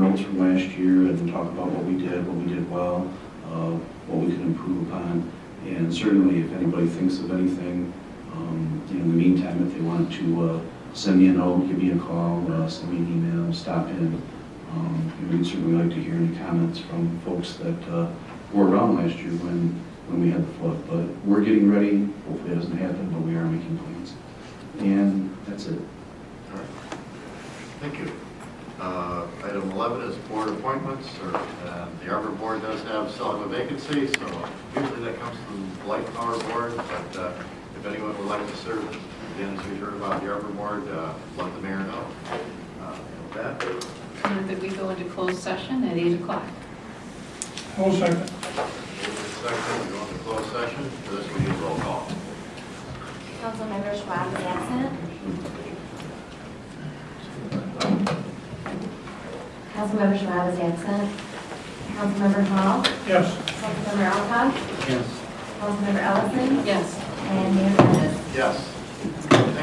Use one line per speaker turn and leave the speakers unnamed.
goals from last year and talk about what we did, what we did well, uh, what we can improve upon. And certainly, if anybody thinks of anything, um, you know, in the meantime, if they want to uh, send me a note, give me a call, uh, send me an email, stop in, um, you know, We'd certainly like to hear any comments from folks that uh, were around last year when, when we had the flood. But we're getting ready, hopefully it doesn't happen, but we are making plans. And that's it.
All right. Thank you. Uh, Item 11 is board appointments, or uh, the Arbor Board does have, still have a vacancy, so usually that comes from the Light Power Board, but uh, if anyone would like to serve, again, as we heard about the Arbor Board, uh, let the mayor know. Uh, with That,
Move that we go into closed session at 8 o'clock.
I'll second.
second, we go into closed session, for this we need a roll call.
Councilmember Schwab is absent. Councilmember Schwab is absent. Councilmember Hall,
Yes.
Councilmember Alcott,
Yes.
Councilmember Ellison,
Yes.
and Mayor Dennis.
Yes.